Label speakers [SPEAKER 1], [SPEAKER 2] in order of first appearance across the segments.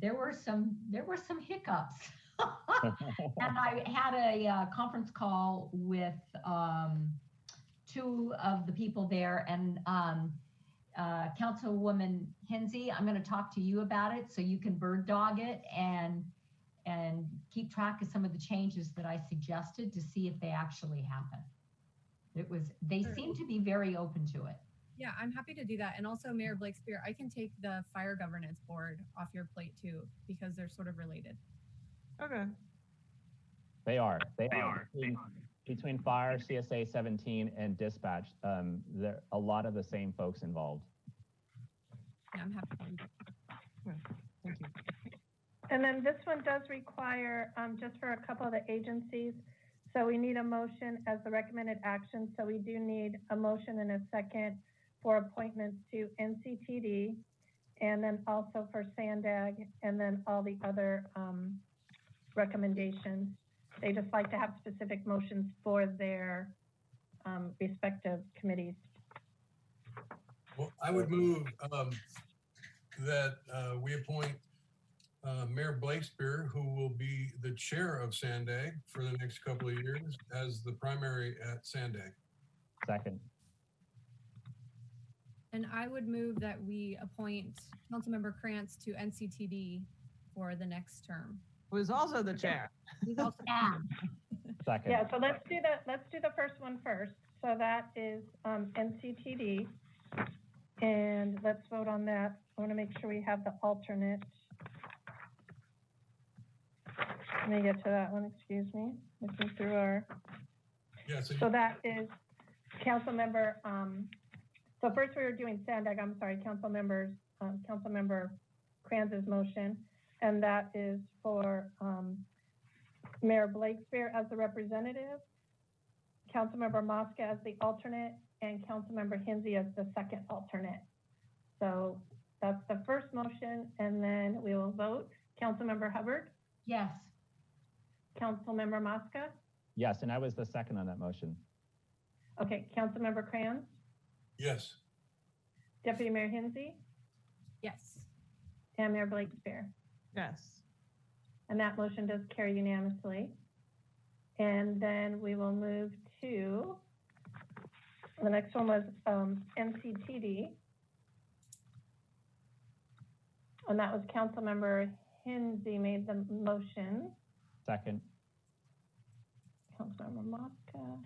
[SPEAKER 1] there were some there were some hiccups. and I had a uh, conference call with um, two of the people there and um, uh, Councilwoman Hensy, I'm going to talk to you about it so you can bird dog it and and keep track of some of the changes that I suggested to see if they actually happen. It was they
[SPEAKER 2] Sure.
[SPEAKER 1] seem to be very open to it.
[SPEAKER 2] Yeah, I'm happy to do that. And also Mayor Blakespear, I can take the fire governance board off your plate too, because they're sort of related.
[SPEAKER 3] Okay.
[SPEAKER 4] They are. They,
[SPEAKER 5] They
[SPEAKER 4] are.
[SPEAKER 5] are. They
[SPEAKER 4] Between, between fire, CSA 17, and dispatch, um, there a lot of the same folks involved.
[SPEAKER 2] Yeah, I'm happy. to do that.
[SPEAKER 3] Thank you.
[SPEAKER 6] And then this one does require, um, just for a couple of the agencies, so we need a motion as the recommended action, so we do need a motion and a second for appointments to NCTD, and then also for Sandag, and then all the other, um, recommendations. They just like to have specific motions for their, um, respective committees.
[SPEAKER 7] Well, I would move um, that uh, we appoint uh, Mayor Blakespear, who will be the chair of Sandag for the next couple of years as the primary at Sandag.
[SPEAKER 4] Second.
[SPEAKER 2] And I would move that we appoint Councilmember Krantz to NCTD for the next term.
[SPEAKER 3] Who is also the chair.
[SPEAKER 2] We've also-
[SPEAKER 1] Yeah.
[SPEAKER 4] Second.
[SPEAKER 6] Yeah, so let's do the, let's do the first one first. So that is um, NCTD. And let's vote on that. I want to make sure we have the alternate. Let me get to that one, excuse me. Looking through our,
[SPEAKER 7] Yeah, so
[SPEAKER 6] so that is Councilmember, um, so first we were doing Sandag, I'm sorry, council members, um, Councilmember Kranz's motion. And that is for, um, Mayor Blakespear as the representative, Councilmember Mosca as the alternate, and Councilmember Hensy as the second alternate. So that's the first motion, and then we will vote. Councilmember Hubbard,
[SPEAKER 1] Yes.
[SPEAKER 6] Councilmember Mosca,
[SPEAKER 4] Yes, and I was the second on that motion.
[SPEAKER 6] okay, Councilmember Kranz,
[SPEAKER 7] yes,
[SPEAKER 6] Deputy Mayor Hensy,
[SPEAKER 2] Yes.
[SPEAKER 6] and Mayor Blakespear.
[SPEAKER 3] Yes.
[SPEAKER 6] And that motion does carry unanimously. And then we will move to, the next one was um, NCTD. And that was Councilmember Hensy made the motion.
[SPEAKER 4] Second.
[SPEAKER 6] Councilmember Mosca.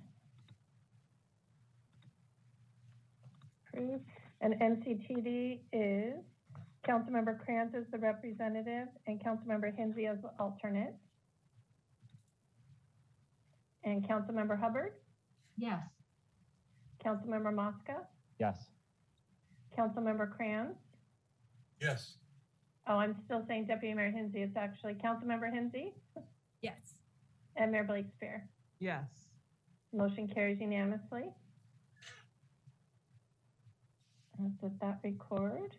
[SPEAKER 6] Approved. And NCTD is Councilmember Krantz as the representative and Councilmember Hensy as the alternate. And Councilmember Hubbard,
[SPEAKER 1] Yes.
[SPEAKER 6] Councilmember Mosca,
[SPEAKER 4] Yes.
[SPEAKER 6] Councilmember Krantz.
[SPEAKER 7] yes,
[SPEAKER 6] Oh, I'm still saying Deputy Mayor Hensy. It's actually Councilmember Hensy
[SPEAKER 2] Yes.
[SPEAKER 6] and Mayor Blakespear.
[SPEAKER 3] Yes.
[SPEAKER 6] Motion carries unanimously. And Let that record.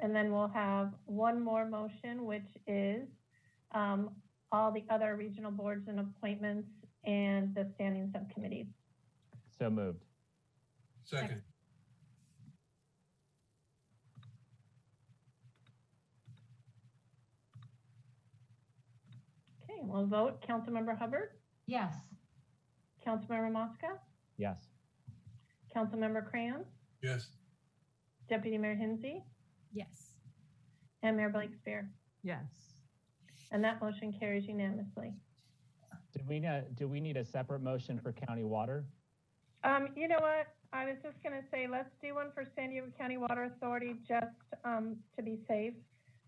[SPEAKER 6] And then we'll have one more motion, which is um, all the other regional boards and appointments and the standing subcommittees.
[SPEAKER 4] So moved.
[SPEAKER 7] second,
[SPEAKER 6] Okay, we'll vote. Councilmember Hubbard,
[SPEAKER 1] Yes.
[SPEAKER 6] Councilmember Mosca,
[SPEAKER 4] Yes.
[SPEAKER 6] Councilmember Cram,
[SPEAKER 7] yes,
[SPEAKER 6] Deputy Mayor Hensy,
[SPEAKER 2] Yes.
[SPEAKER 6] and Mayor Blakespear.
[SPEAKER 3] Yes.
[SPEAKER 6] And that motion carries unanimously.
[SPEAKER 4] Do we, ne- do we need a separate motion for county water?
[SPEAKER 6] Um, you know what? I was just gonna say, let's do one for San Diego County Water Authority, just, um, to be safe.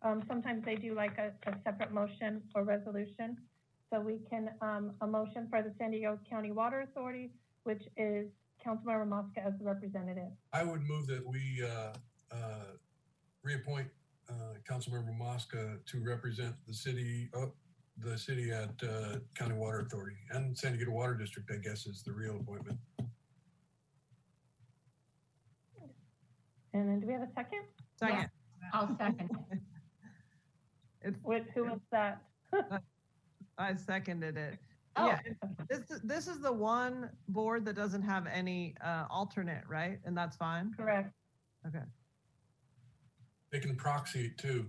[SPEAKER 6] Um, sometimes they do like a, a separate motion or resolution. So we can, um, a motion for the San Diego County Water Authority, which is Councilmember Mosca as the representative.
[SPEAKER 7] I would move that we uh, uh, reappoint uh, Councilmember Mosca to represent the city, uh, the city at uh, County Water Authority and San Diego Water District, I guess, is the real appointment.
[SPEAKER 6] And then do we have a second?
[SPEAKER 3] Second.
[SPEAKER 1] I'll second. it.
[SPEAKER 3] It's,
[SPEAKER 6] Which, who was that?
[SPEAKER 3] I seconded it.
[SPEAKER 1] Oh.
[SPEAKER 3] Yeah. and This, is- this is the one board that doesn't have any, uh, alternate, right? And that's fine?
[SPEAKER 6] Correct.
[SPEAKER 3] Okay.
[SPEAKER 7] They can proxy it too.